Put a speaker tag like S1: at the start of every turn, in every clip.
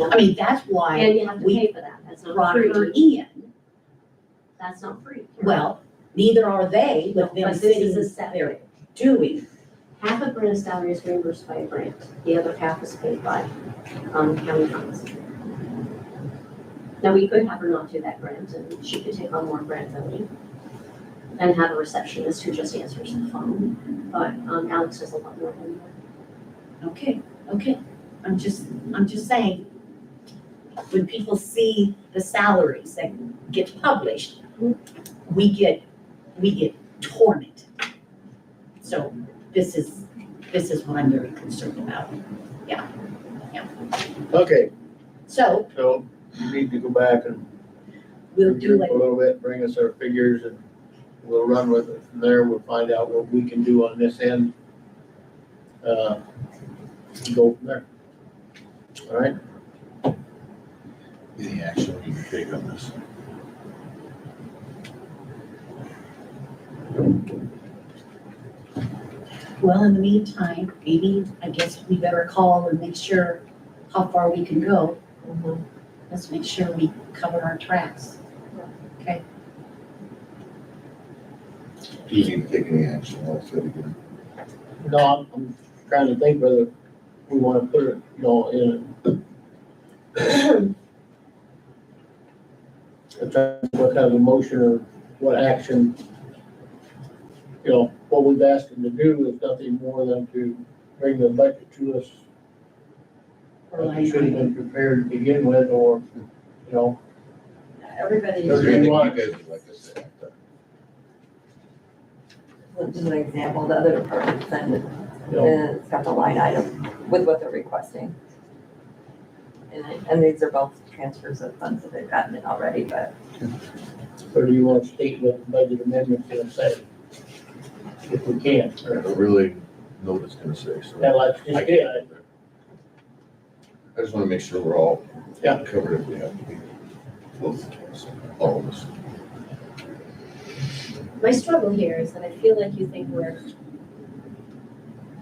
S1: I mean, that's why
S2: And you have to
S1: we
S2: pay for that, that's not
S1: brought her
S2: free,
S1: in.
S2: that's not free.
S1: Well, neither are they with them
S2: But this is a
S1: sitting
S2: separate,
S1: there doing.
S2: half of Brenna's salary is reimbursed by a grant, the other half is paid by, um, county funds. Now, we could have her not do that grant, and she could take on more grant money and have a receptionist who just answers the phone, but, um, Alex does a lot more than that.
S1: Okay, okay. I'm just, I'm just saying, when people see the salaries that get published, we get, we get tormented. So this is, this is what I'm very concerned about.
S3: Okay,
S1: So
S3: so you need to go back and
S1: we'll do
S3: regroup
S1: it.
S3: a little bit, bring us our figures and we'll run with it from there. We'll find out what we can do on this end. Uh, Go from there. All right,
S4: Any action we can take on this?
S1: Well, in the meantime, maybe, I guess we better call and make sure how far we can go. Let's make sure we cover our tracks.
S4: Do you need to take any action? I'll say it again.
S3: no, I'm- I'm trying to think whether we want to put it, you know, in. I'm trying to think What kind of motion or what action, you know, what we've asked them to do is nothing more than to bring the budget to us
S1: Or
S3: that
S1: line
S3: you should have
S1: item.
S3: been prepared to begin with, or, you know,
S5: Everybody
S4: Is
S3: Does
S4: there
S3: it-
S5: is,
S4: anything you guys would like us to act on?
S5: just an example, the other department send it,
S3: you know,
S5: and it's got the line item with what they're requesting. And, I- and these are both transfers of funds that they've gotten in already, but
S3: or do you want to state what the budget amendment's gonna say? If we can,
S4: I
S3: or,
S4: don't really know what it's gonna say, so
S3: yeah, like, you
S4: I
S3: did,
S4: can't. I just wanna make sure we're all
S3: Yeah.
S4: covered if we have to be. Both of us, all of us.
S2: My struggle here is that I feel like you think we're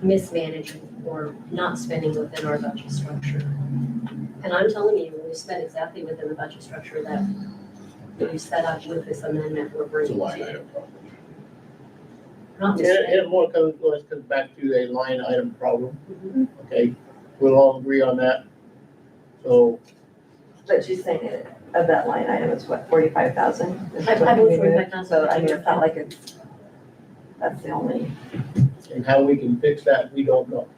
S2: mismanaging or not spending within our budget structure. And I'm telling you, we spent exactly within the budget structure that we set up with this amendment we're
S4: It's a
S2: bringing to
S4: line
S2: you.
S4: item problem.
S2: Not
S3: It,
S2: just spending.
S3: it more comes, always comes back to a line item problem,
S2: Mm-hmm.
S3: okay? We'll all agree on that. So,
S5: but she's saying it, of that line item, it's what, forty-five thousand?
S2: I- I believe 45,000.
S5: So I mean, it's not like it's, that's the only,
S3: and how we can fix that, we don't know.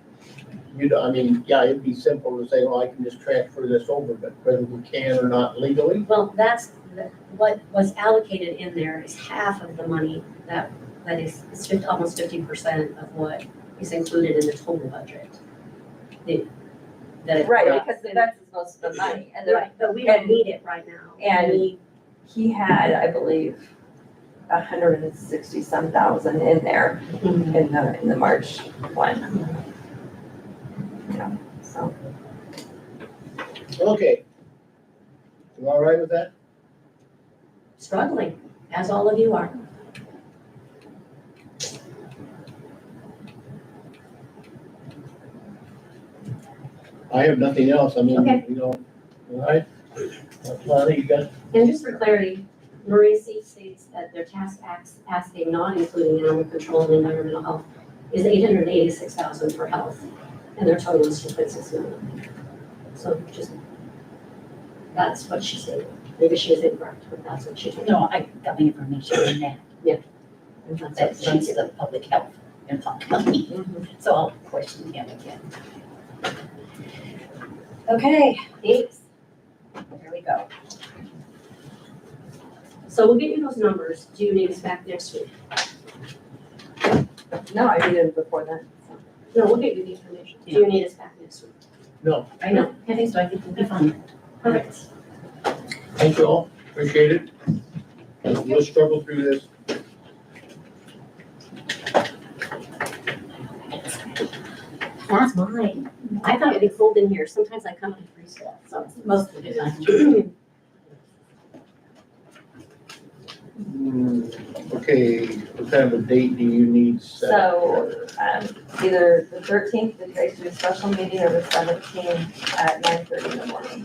S3: You know, I mean, yeah, it'd be simple to say, well, I can just transfer this over, but whether we can or not legally,
S2: Well, that's, the- what was allocated in there is half of the money that, that is, it's fif- almost fifty percent of what is included in the total budget. The- That it-
S5: right, because that's most of the money, and the
S2: Right, but we don't
S5: and-
S2: need it right now.
S5: and-
S2: We-
S5: he had, I believe, a hundred and sixty-some thousand in there in the, in the March one. Yeah, so,
S3: okay? You all right with that?
S2: struggling, as all of you are.
S3: I have nothing else, I mean,
S2: Okay.
S3: you know, all right? Lonnie, you got,
S2: And just for clarity, Marisi states that their task ax- asking, not including animal control and environmental health, is eight hundred and eighty-six thousand for health, and their total is two point six million. So just, that's what she stated. Maybe she is incorrect, but that's what she told me.
S1: No, I got the information on that. That
S2: That's what she
S1: she's
S2: said.
S1: the public health and Hawk County, so I'll question him again.
S2: Okay, thanks.
S1: There we go.
S2: So we'll get you those numbers. Do you need us back next week?
S5: no, I did it before then.
S2: No, we'll get you the information. Do you need us back next week?
S3: no,
S1: I know, I think so, I think we'll be fine.
S2: Perfect.
S3: thank you all, appreciate it. We'll struggle through this.
S1: That's mine.
S2: I thought it'd be cold in here. Sometimes I come and freeze to death, so.
S1: Most of the time.
S3: Hmm, Okay, what kind of a date do you need set?
S5: So, um, either the thirteenth, the guys do a special meeting, or the seventeenth at nine thirty in the morning.